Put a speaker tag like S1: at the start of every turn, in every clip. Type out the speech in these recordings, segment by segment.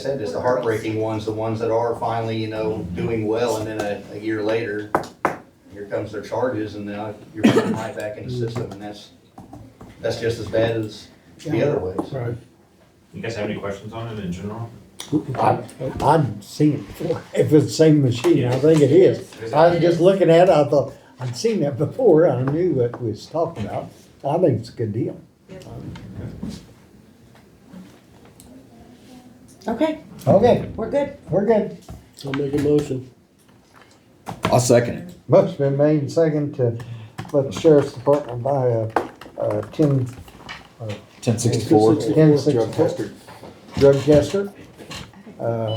S1: said, just the heartbreaking ones, the ones that are finally, you know, doing well, and then a, a year later, here comes their charges, and now you're putting right back in the system, and that's, that's just as bad as the other ways.
S2: Right.
S3: You guys have any questions on it in general?
S4: I, I'd seen it before. If it's the same machine, I think it is. I was just looking at it, I thought, I'd seen that before, I knew what we was talking about. I think it's a good deal.
S5: Okay,
S4: Okay,
S5: we're good.
S4: we're good.
S2: I'll make a motion.
S6: I'll second it.
S4: Motion been made and second to let the sheriff's department buy a, a ten,
S6: Ten sixty-four.
S4: ten sixty-four drug tester. Uh,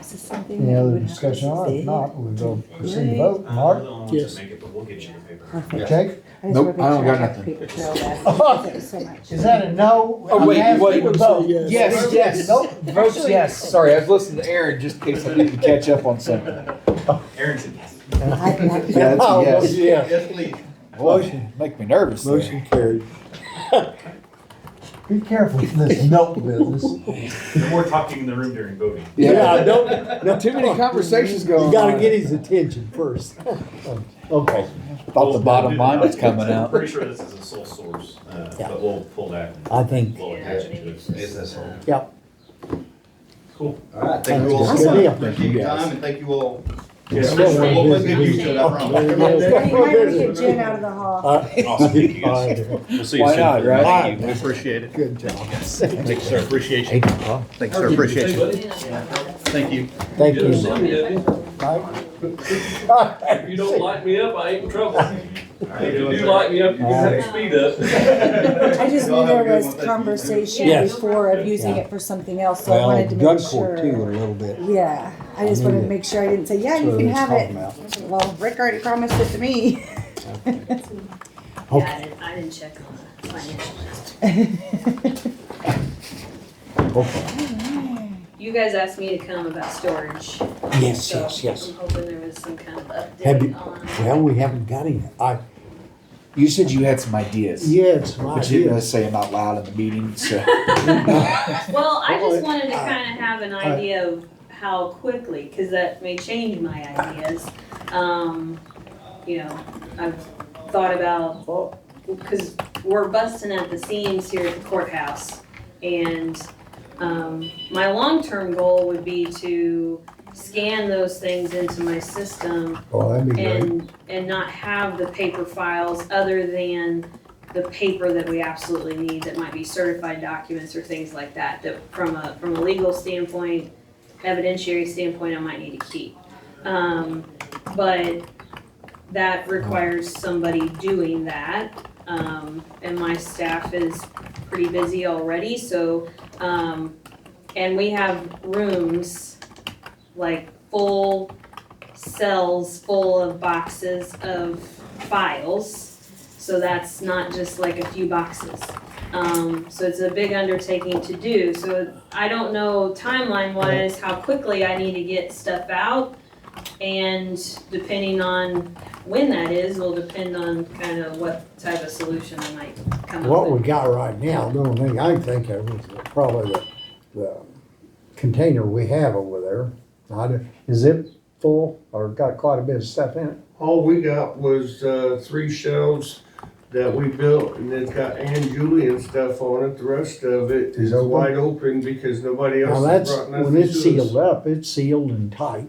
S5: Is this something
S4: any
S5: that
S4: other
S5: would have
S4: discussion
S5: to
S4: on it?
S5: see?
S4: If not, we'll go proceed to vote.
S3: Uh, we're
S4: Mark,
S3: the only ones
S2: Yes.
S3: that make it, but we'll get you the paper.
S5: Perfect.
S4: Jake?
S5: I just wanna
S6: Nope,
S5: make
S6: I don't
S5: sure
S6: got
S5: have
S6: nothing.
S5: people to know that. Thank you so much.
S4: Is that a no?
S6: Oh, wait,
S4: I'm
S6: wait.
S4: asking to
S2: Say
S4: vote.
S2: yes.
S6: Yes, yes.
S4: Nope.
S6: Votes yes. Sorry, I was listening to Aaron just in case I needed to catch up on something.
S3: Aaron said yes.
S5: I can have
S6: Yeah, that's a yes.
S4: yes.
S1: Yes, please.
S6: Boy, make me nervous there.
S2: Motion carried.
S4: Be careful with this note business.
S3: No more talking in the room during voting.
S2: Yeah, I
S6: Yeah,
S2: don't, no,
S6: too many conversations going on.
S4: You gotta get his attention first. Okay.
S6: Thought the bottom line was coming
S3: I'm
S6: out.
S3: Pretty sure this is a sole source, uh,
S4: Yeah.
S3: but we'll pull that and
S4: I think,
S3: we'll attach it to it.
S1: It's this whole.
S4: yeah,
S3: Cool.
S1: All right, thank you all
S4: That's
S1: so
S4: good deal.
S1: much. Thank you for your time, and thank you all.
S3: Yes.
S4: Yeah, we're
S1: We'll put
S4: busy.
S1: good use to it, I promise.
S5: Hey, why don't we
S4: Good
S5: get Jen out of the
S4: Uh,
S5: hall?
S3: Awesome. Thank you guys. We'll see you
S6: Why
S3: soon.
S6: not, right?
S3: Thank you.
S6: Alright.
S1: Appreciate it.
S4: job.
S3: Thank you, sir. Appreciate
S6: Hey,
S3: you.
S6: Paul.
S1: Thanks, sir, appreciate it. Thank you.
S4: Thank you.
S7: If you don't light me up, I ain't in trouble. If you do light me up, you can have speed up.
S5: I just knew
S1: Y'all have
S5: there
S1: a good
S5: was
S1: one. Thank you.
S5: conversation
S4: Yes.
S5: before of using
S4: Yeah.
S5: it for something else, so I
S4: Well,
S5: wanted to
S4: drug
S5: make
S4: court too, a
S5: sure.
S4: little bit.
S5: Yeah, I just
S4: I
S5: wanted
S4: knew
S5: to
S4: it.
S5: make sure I didn't say, yeah,
S4: That's
S5: you
S4: what
S5: can
S4: I was
S5: have
S4: talking
S5: it.
S4: about.
S5: Well, Rick already promised it to me.
S8: Yeah,
S4: Okay,
S8: I didn't, I didn't check on the financial list.
S4: okay.
S8: You guys asked me to come about storage.
S4: Yes,
S8: so
S4: yes, yes.
S8: I'm hoping there was some kind of
S4: Have you-
S8: update on.
S4: Well, we haven't got any. I,
S6: You said you had some ideas.
S4: yeah, it's my
S6: But you didn't
S4: idea.
S6: say them out loud in the meeting, so.
S8: Well, I
S4: Well,
S8: just wanted to
S4: I-
S8: kind of have an
S4: I-
S8: idea of how quickly, because that may change my ideas. Um, you know, I've thought about, well, because we're busting at the seams here at the courthouse. And, um, my long-term goal would be to scan those things into my system
S4: Oh, that'd be great.
S8: and, and not have the paper files other than the paper that we absolutely need that might be certified documents or things like that, that from a, from a legal standpoint, evidentiary standpoint, I might need to keep. Um, but that requires somebody doing that. Um, and my staff is pretty busy already, so, um, and we have rooms, like full cells full of boxes of files. So that's not just like a few boxes. Um, so it's a big undertaking to do. So I don't know timeline wise how quickly I need to get stuff out. And depending on when that is, will depend on kind of what type of solution I might come up
S4: What
S8: with.
S4: we got right now, the only thing I can think of is probably the, the container we have over there. Not, is it full or got quite a bit of stuff in it?
S9: All we got was, uh, three shelves that we built and it's got Ann Julian stuff on it. The rest of it
S4: Is
S9: is
S4: open?
S9: wide open because nobody
S4: Now
S9: else has
S4: that's,
S9: brought
S4: when
S9: nothing
S4: it's
S9: to
S4: sealed
S9: us.
S4: up, it's sealed and tight,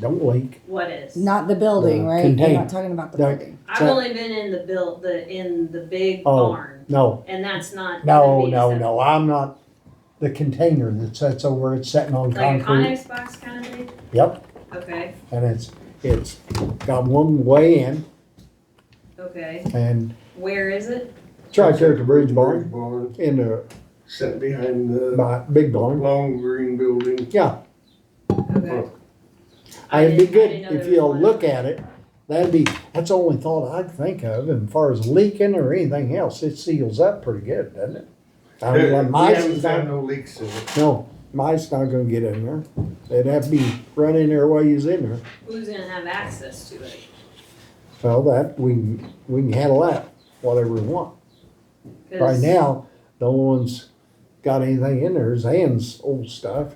S4: don't leak.
S8: What is?
S5: Not the building,
S4: The
S5: right? You're
S4: container.
S5: not talking about the
S4: No.
S5: building.
S8: I've only been in the build, the, in the big
S4: Oh.
S8: barn
S4: No,
S8: and that's not. gonna
S4: no,
S8: be
S4: no,
S8: acceptable.
S4: no, I'm not, the container that sits over, it's sitting on
S8: Like a
S4: concrete.
S8: Conex box Oh, kind of thing?
S4: Yep,
S8: Okay,
S4: and it's, it's got one way in
S8: okay.
S4: and
S8: Where is it?
S4: it's right there at the bridge barn
S9: Barn,
S4: in the,
S9: set behind the
S4: my big barn.
S9: long green building.
S4: Yeah,
S8: Okay. I
S4: It'd be
S8: didn't- I
S4: good
S8: didn't know
S4: if
S8: there was
S4: you'll
S8: one.
S4: look at it. That'd be, that's the only thought I'd think of, and as far as leaking or anything else, it seals up pretty good, doesn't it? I mean, like
S9: We
S4: mice
S9: haven't
S4: is
S9: found
S4: not,
S9: no leaks in it.
S4: no, mice not gonna get in there. They'd have to be running there while you's in there.
S8: Who's gonna have access to it?
S4: Well, that, we, can- we can handle that, whatever we want.
S8: 'Cause-
S4: Right now, the only one's got anything in there is Ann's old stuff.